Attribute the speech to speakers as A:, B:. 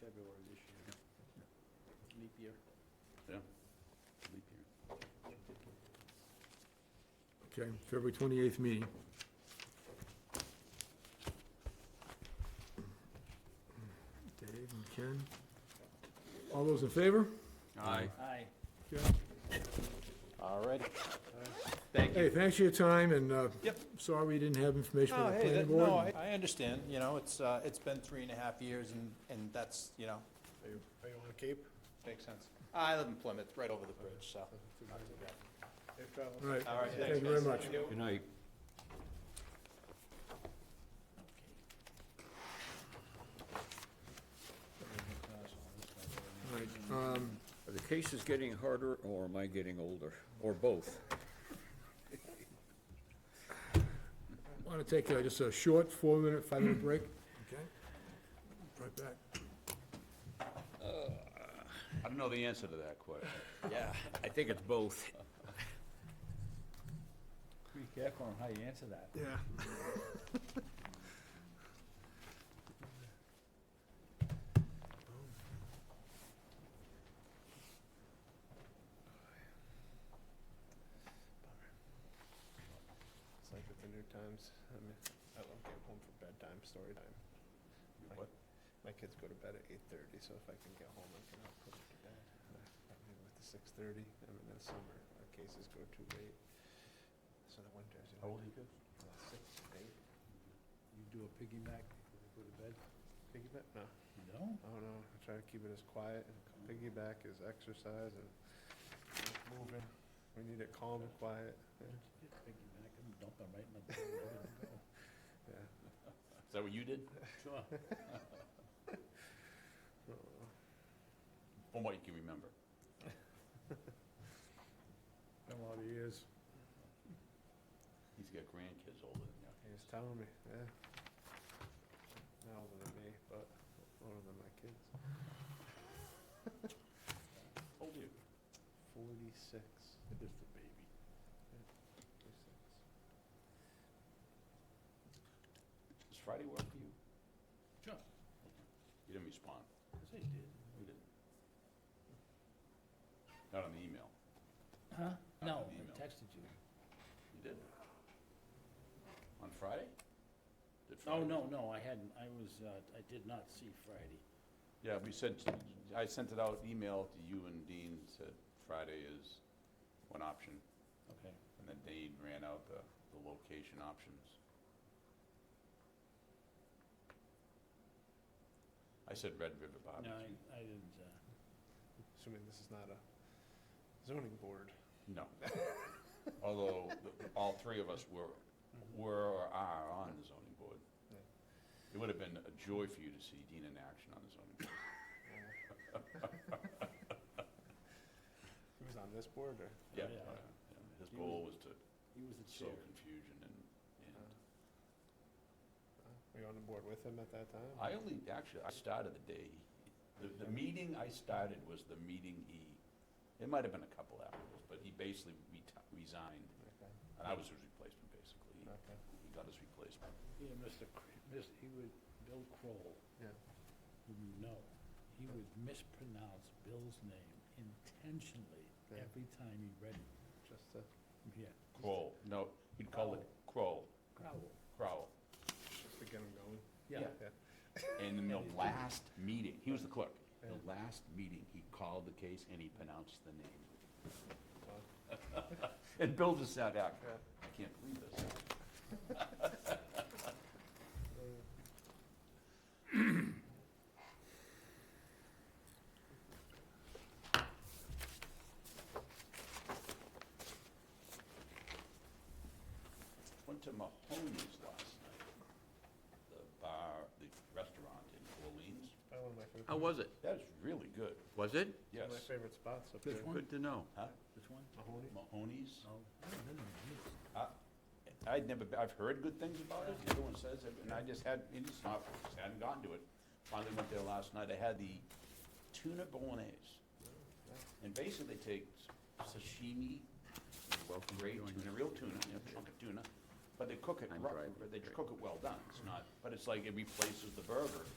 A: February this year. Leap year.
B: leap year.
C: Okay, February 28th meeting. Dave and Ken. All those in favor?
B: Aye.
A: Aye.
D: All right.
C: Hey, thanks for your time, and uh,
D: Yep.
C: sorry we didn't have information
D: Oh,
C: on the
D: hey,
C: planning
D: that- no,
C: board.
D: I, I understand, you know, it's, uh, it's been three and a half years and, and that's, you know,
A: Are you, are you on the Cape?
D: makes sense. I live in Plymouth, right over the bridge, so.
A: Safe travels.
C: All right,
D: All right,
C: thank you very much.
B: Good night.
C: All right, um,
B: Are the cases getting harder, or am I getting older, or both?
C: Want to take uh, just a short four-minute, five-minute break? Okay. Right back.
B: I don't know the answer to that question.
D: Yeah.
B: I think it's both.
A: Be careful on how you answer that.
C: Yeah.
A: It's like with the New Times, I mean, I love getting home for bedtime, story time. My-
D: what?
A: My kids go to bed at eight thirty, so if I can get home, I can help put them to bed. And I- I mean, with the six thirty, I mean, in the summer, our cases go too late. So the winters, you know. How old are you kids? Six, eight. You do a piggyback when you go to bed? Piggyback, no.
B: No?
A: I don't know, Oh, I try to keep it as quiet, and piggyback is exercise and you know, moving, we need it calm and quiet, yeah, yeah.
B: Is that what you did?
A: I don't know.
B: From what you can remember.
A: Been a lot of years.
B: He's got grandkids older than you.
A: He was telling me, yeah. Not older than me, but older than my kids,
B: How old are you?
A: forty-six.
B: Just a baby. Does Friday work for you? Sure. You didn't respond. Yes, I did. You didn't? Not on the email.
E: Huh?
B: Not
E: No,
B: an email.
E: I texted you.
B: You did? On Friday? Did
E: Oh,
B: Friday?
E: no, no, I hadn't, I was, uh, I did not see Friday.
B: Yeah, we sent, I sent it out, email to you and Dean, said Friday is one option,
E: Okay.
B: and then Dean ran out the, the location options. I said Red River Bottom.
E: No, I, I didn't, uh,
A: Assuming this is not a zoning board.
B: No. Although, the- all three of us were,
E: Mm-hmm.
B: were or are on the zoning board.
A: Yeah.
B: It would have been a joy for you to see Dean in action on the zoning board.
A: He was on this board or?
B: Yeah,
E: Oh, yeah.
B: uh, yeah, his
E: He
B: goal was to
E: he was the
B: sow
E: chair.
B: confusion and, and
A: Uh, Were you on the board with him at that time?
B: I only, actually, I started the day, the, the meeting I started was the meeting he, it might have been a couple afterwards, but he basically reti- resigned,
A: Okay,
B: and I was his replacement, basically. He-
A: okay,
B: He got his replacement.
E: Yeah, Mr. Cr- Mis- he would, Bill Kroll,
A: yeah.
E: whom you know, he would mispronounce Bill's name intentionally
A: Yeah.
E: every time he read it.
A: Just to,
E: Yeah.
B: Kroll, no, he'd call it Kroll,
E: Crowell.
B: Crowell.
A: just to get him going.
E: Yeah.
B: Yeah. And in the last meeting, he was the clerk, the last meeting, he called the case and he pronounced the name.
A: Well,
B: And Bill just sat out,
A: Yeah.
B: I can't believe this. Went to Mahoney's last night, the bar, the restaurant in Orleans.
A: Probably one of my favorite.
F: How was it?
B: That is really good,
F: Was it?
B: yes.
A: One of my favorite spots up there.
E: Which one?
F: Good to know.
B: Huh?
E: Which one?
A: Mahoney.
B: Mahoney's?
E: Oh, I haven't been there
B: I'd never, be- I've heard good things about it, everyone says it, and I just had, it just not, just hadn't gotten to it. Finally went there last night, I had the tuna bolognese. And basically they take sashimi, great tuna, real tuna, you know, chunk of tuna, but they cook it,
F: I'm
B: rough-
F: driving,
B: they
F: great.
B: cook it well done, it's not, but it's like it replaces the burger.